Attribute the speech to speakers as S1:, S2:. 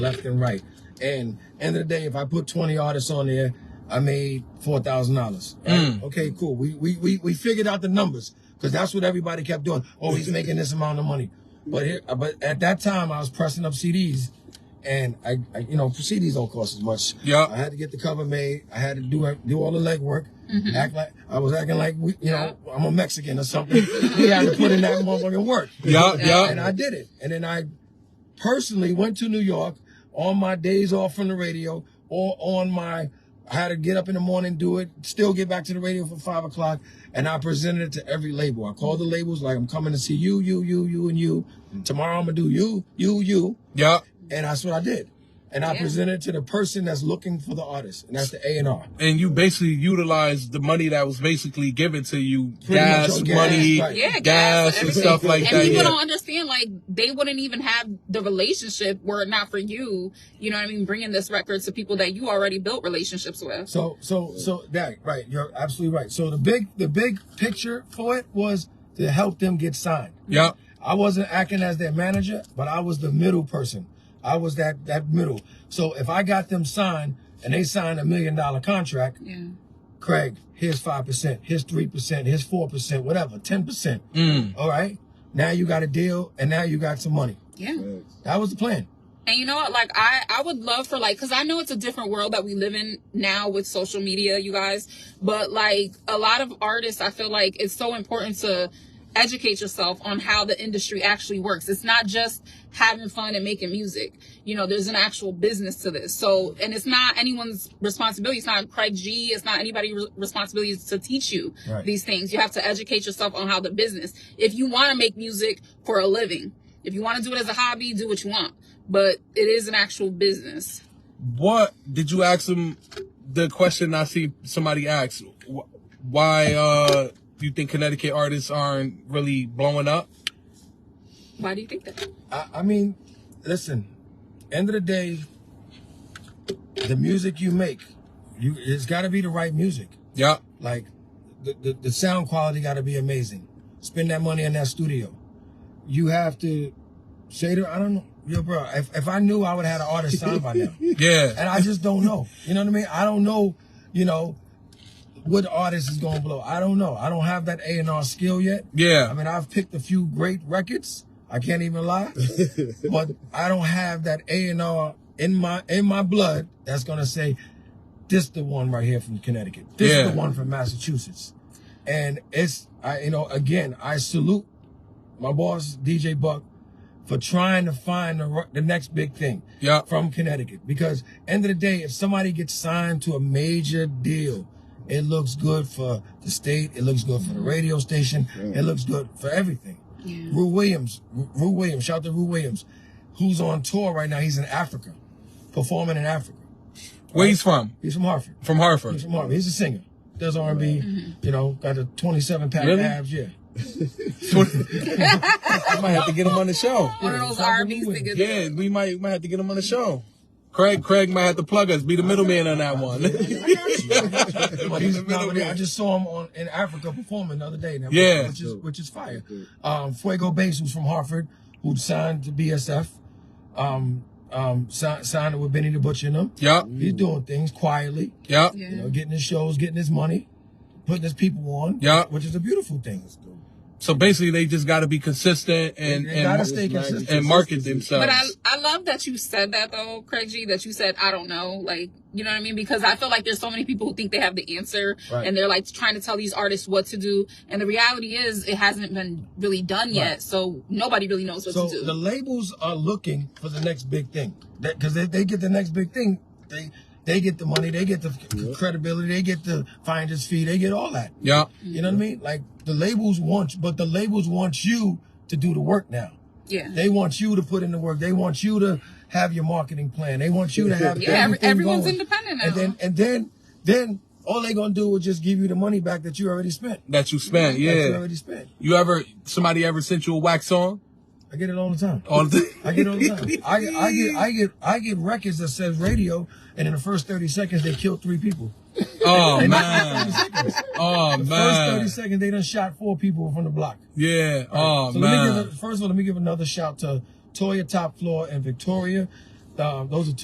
S1: left and right. And end of the day, if I put 20 artists on there, I made four thousand dollars. Okay, cool. We, we we we figured out the numbers because that's what everybody kept doing. Oh, he's making this amount of money. But here, uh, but at that time, I was pressing up CDs, and I, I you know CDs don't cost as much.
S2: Yeah.
S1: I had to get the cover made. I had to do uh, do all the legwork. Act like I was acting like we, you know I'm a Mexican or something. we had to put in that motherfucking work.
S2: Yeah,
S1: And
S2: yeah.
S1: I did it. And then I personally went to New York on my days off from the radio or on my I had to get up in the morning, do it, still get back to the radio for five o'clock, and I presented it to every label. I called the labels like I'm coming to see you, you, you, you, and you. Tomorrow I'm gonna do you, you, you,
S2: Yeah.
S1: and that's what I did. And I
S3: Yeah.
S1: presented it to the person that's looking for the artist, and that's the A and R.
S2: And you basically utilized the money that was basically given to you,
S1: Pretty much
S2: gas,
S1: on gas,
S2: money,
S1: right.
S3: Yeah,
S2: gas, and
S3: everything.
S2: stuff like
S3: and
S2: that.
S3: people
S2: yeah.
S3: don't understand, like, they wouldn't even have the relationship were it not for you, you know what I mean, bringing this record to people that you already built relationships with.
S1: So so so that right, you're absolutely right. So the big the big picture for it was to help them get signed.
S2: Yeah.
S1: I wasn't acting as their manager, but I was the middle person. I was that that middle. So if I got them signed and they signed a million dollar contract,
S3: Yeah.
S1: Craig, here's five percent, here's three percent, here's four percent, whatever, ten percent.
S2: Mm.
S1: All right. Now you got a deal, and now you got some money.
S3: Yeah.
S1: That was the plan.
S3: And you know what? Like, I, I would love for, like, because I know it's a different world that we live in now with social media, you guys. But, like, a lot of artists, I feel like it's so important to educate yourself on how the industry actually works. It's not just having fun and making music. You know, there's an actual business to this. So, and it's not anyone's responsibility. It's not Craig G. It's not anybody's re- responsibility to teach you
S1: Right.
S3: these things. You have to educate yourself on how the business. If you want to make music for a living, if you want to do it as a hobby, do what you want. But it is an actual business.
S2: What did you ask him? The question I see somebody asked: wh- Why uh, you think Connecticut artists aren't really blowing up?
S3: Why do you think that?
S1: I, I mean, listen, end of the day, the music you make, you it's gotta be the right music.
S2: Yeah.
S1: Like the, the, the sound quality got to be amazing. Spend that money in that studio. You have to say to I don't know, yo, bro. If, if I knew, I would have had an artist signed by now,
S2: Yeah.
S1: and I just don't know. You know what I mean? I don't know. You know what artist is gonna blow. I don't know. I don't have that A and R skill yet. I
S2: Yeah.
S1: mean, I've picked a few great records. I can't even lie, but I don't have that A and R in my in my blood that's gonna say this the one right here from Connecticut. This
S2: Yeah.
S1: the one from Massachusetts. And it's I you know again I salute my boss DJ Buck for trying to find the ri- the next big thing
S2: Yeah.
S1: from Connecticut because end of the day if somebody gets signed to a major deal it looks good for the state it looks good for the radio station it looks good for everything
S3: Yeah.
S1: Rue Williams Ru- Rue Williams shout out to Rue Williams who's on tour right now he's in Africa performing in Africa
S2: Where he's from?
S1: he's from Hartford
S2: From
S1: He's
S2: Hartford.
S1: from Harvard. He's a singer. Does R and B. You know, got the twenty seven pack
S2: Really?
S1: abs. Yeah.
S2: I might have to get him on the show.
S3: One of those
S1: Yeah,
S3: R&B
S1: probably.
S3: singers.
S2: Yeah, we might might have to get him on the show. Craig, Craig might have to plug us, be the middleman on that one.
S1: But he's- no, but I just saw him on in Africa performing the other day. Now,
S2: Yeah.
S1: Which is which is fire. Um, Fuego Bass, who's from Hartford, who signed to BSF, um, um, si- signed with Benny the Butcher and them.
S2: Yup,
S1: He's doing things quietly,
S2: yup,
S1: you
S3: Yeah.
S1: know, getting his shows, getting his money, putting his people on.
S2: Yeah.
S1: Which is a beautiful thing.
S2: So basically, they just got to be consistent and
S1: They gotta
S2: and,
S1: stay consistent.
S2: and market themselves.
S3: But I, I love that you said that though, Craig G, that you said, I don't know. Like, you know what I mean? Because I feel like there's so many people who think they have the answer
S1: Right.
S3: and they're like trying to tell these artists what to do. And the reality is it hasn't been really done yet.
S1: Right.
S3: So nobody really knows what
S1: So
S3: to do.
S1: the labels are looking for the next big thing because if they get the next big thing, they they get the money, they get the c- credibility, they get the finder's fee, they get all that.
S2: yeah,
S1: You know what I mean? Like the labels want, but the labels want you to do the work now.
S3: yeah.
S1: They want you to put in the work. They want you to have your marketing plan. They want you to have
S3: Yeah, every-
S1: everything
S3: everyone's
S1: going.
S3: independent now.
S1: And then and then then all they gonna do is just give you the money back that you already spent.
S2: that you spent.
S1: That you
S2: Yeah,
S1: already spent.
S2: you ever somebody ever sent you a wax on?
S1: I get it all the time.
S2: All the
S1: I get on the time. I, I get I get I get records that says radio, and in the first thirty seconds they killed three people.
S2: oh
S1: Thirty
S2: man,
S1: seconds.
S2: oh
S1: First thirty
S2: man,
S1: seconds they done shot four people from the block.
S2: yeah, oh
S1: so let me give
S2: man,
S1: a, first of all let me give another shout to Toya Top Floor and Victoria. um, those are two.